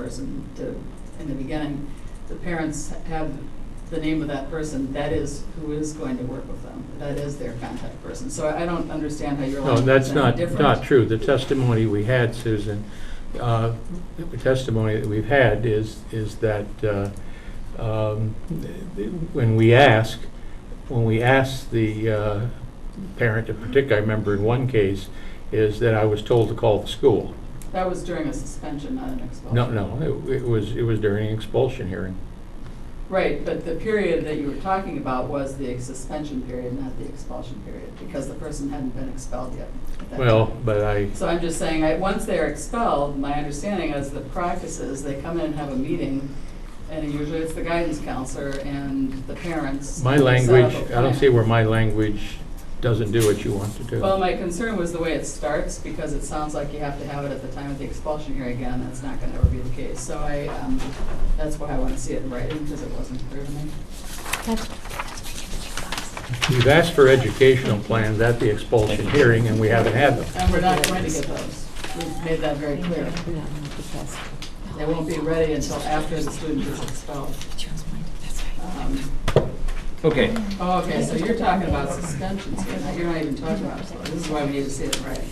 person to, in the beginning, the parents have the name of that person, that is who is going to work with them, that is their contact person. So I don't understand how your No, language that's is any not, different. not true. The testimony we had, Susan, uh, the testimony that we've had is, is that uh, um, when we ask, when we ask the uh, parent, in particular, I remember in one case, is that I was told to call the school. That was during a suspension, not an expulsion. No, no, it it was, it was during an expulsion hearing. Right, but the period that you were talking about was the suspension period, not the expulsion period, because the person hadn't been expelled yet. at that Well, time. but I, So I'm just saying, I, once they're expelled, my understanding is the practice is they come in and have a meeting, and usually it's the guidance counselor and the parents. my set up a language, I don't plan. see where my language doesn't do what you want to do. Well, my concern was the way it starts, because it sounds like you have to have it at the time of the expulsion here again, that's not gonna ever be the case. So I, um, that's why I wanna see it in writing, because it wasn't clear to me. That's You've asked for educational plans at the expulsion hearing, and we haven't had them. And we're not going to get those. We've made that very clear. They won't be ready until after the student is expelled. Um, Okay, Oh, okay, so you're talking about suspensions here, now you're not even talking about expulsions. This is why we need to see it in writing.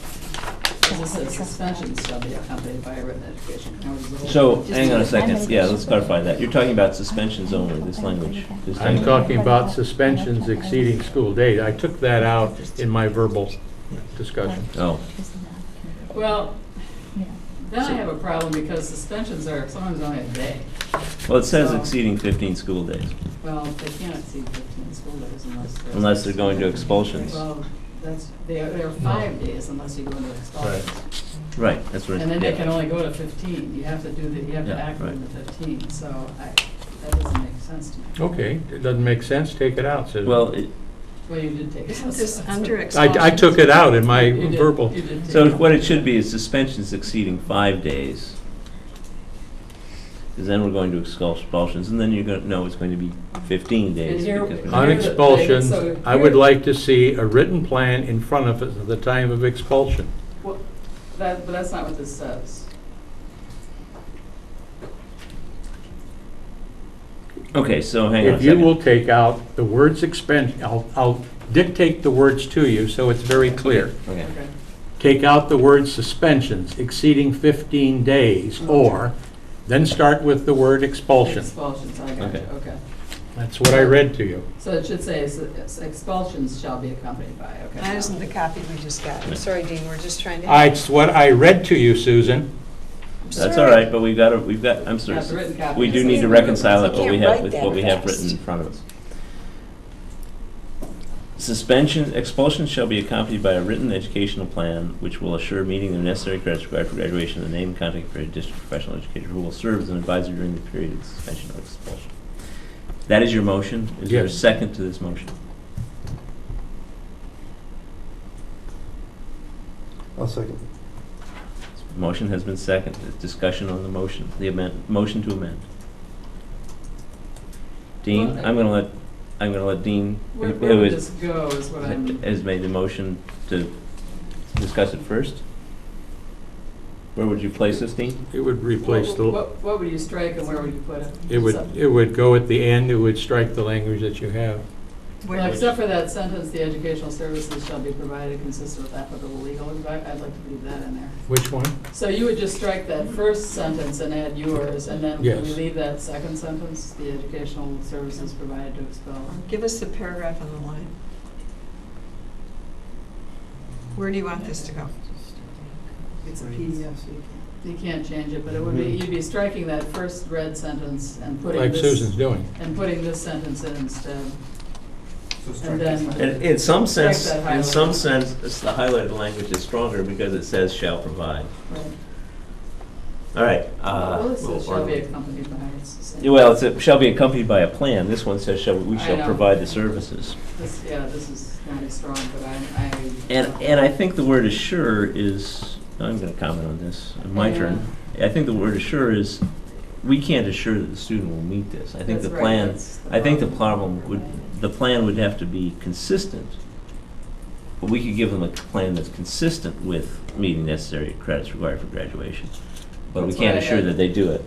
'Cause This says suspensions shall be accompanied by a written education. Now we're going- so, hang on a second, yeah, let's clarify that. You're talking about suspensions only, this language. this I'm language. talking about suspensions exceeding school date. I took that out in my verbal discussion. Oh, Well, then I have a problem because suspensions are, sometimes only a day. well, it says So- exceeding fifteen school days, Well, they can't exceed fifteen school days unless they're. unless they're going to expulsions. Well, that's, they are, they're five days unless you go into expulsion. Right. Right, that's what. it- And then they yeah. can only go to fifteen, you have to do the, you have to Yeah, act on the right. fifteen, so I, that doesn't make sense to me. Okay, it doesn't make sense, take it out, Susan. Well, it- Well, you did take. it. This under ex- I, I took it out in my You did- verbal. you did take so it. what it should be is suspensions exceeding five days. Because then we're going to expul- expulsions, and then you're gonna, no, it's going to be fifteen days. And here- because we're- here On the thing, expulsion, so I would here- like to see a written plan in front of us at the time of expulsion. Well, That, but that's not what this says. Okay, so hang on a If you second. will take out the words expen, I'll, I'll dictate the words to you so it's very clear. Okay. Okay. take out the word suspensions exceeding 15 days, or, then start with the word expulsion. Expulsions, I got you, Okay. okay. That's what I read to you. So it should say s- expulsions shall be accompanied by, okay. That isn't the copy we just got. I'm sorry, Dean, we're just trying to. I- It's what I read to you, Susan. I'm That's sorry. all right, but we've got, to we've got, I'm sorry. Not the written copy. We do It's need to the- reconcile it, You what we can't have, write with that what we have fast. written in front of us. Suspension, expulsion shall be accompanied by a written educational plan which will assure meeting the necessary credits required for graduation of the named contact period district professional educator who will serve as an advisor during the period of suspension or expulsion. That is your motion? Is there a Yes. second to this motion? I'll second. Motion has been seconded. Discussion on the motion, the amend, motion to amend. Dean, Well, I- I'm gonna let, I'm gonna let Dean, Where, where who would is, this go is what I'm, has made the motion to discuss it first. Where would you place this, Dean? It would replace the, what, what would you strike and where would you put it? it would, Except- it would go at the end, it would strike the language that you have. Well, Where- except for that sentence, the educational services shall be provided consistent with applicable legal advice, I'd like to leave that in there. Which one? So you would just strike that first sentence and add yours, and then can we Yes. leave that second sentence, the educational services provided to expel? Give us the paragraph on the line. Where do you want this to go? It's a PDF, so you can't. You can't change it, but it would be, you'd be striking that first red sentence and putting Mm-hmm. Like this. Susan's doing. And putting this sentence in instead, So strike and this one. In, then, in some Strike sense, that in some highlighted. sense, it's the highlighted language is stronger because it says shall provide. right. All right. uh, Well, it we'll says shall be order- accompanied by, it's the same. Yeah, Well, it's a- shall be accompanied by a plan. This one says shall, we I shall know. provide the services. This- Yeah, this is not as strong, but I, I. And, and I think the word assure is, I'm gonna comment on this, my turn. I think the word assure is, we can't assure that the student will meet this. I think That's the right, plan, that's the I think the problem. problem would, the plan would have to be consistent. But we could give them a plan that's consistent with meeting necessary credits required for graduation. but we That's can't why I assure had- that they do it.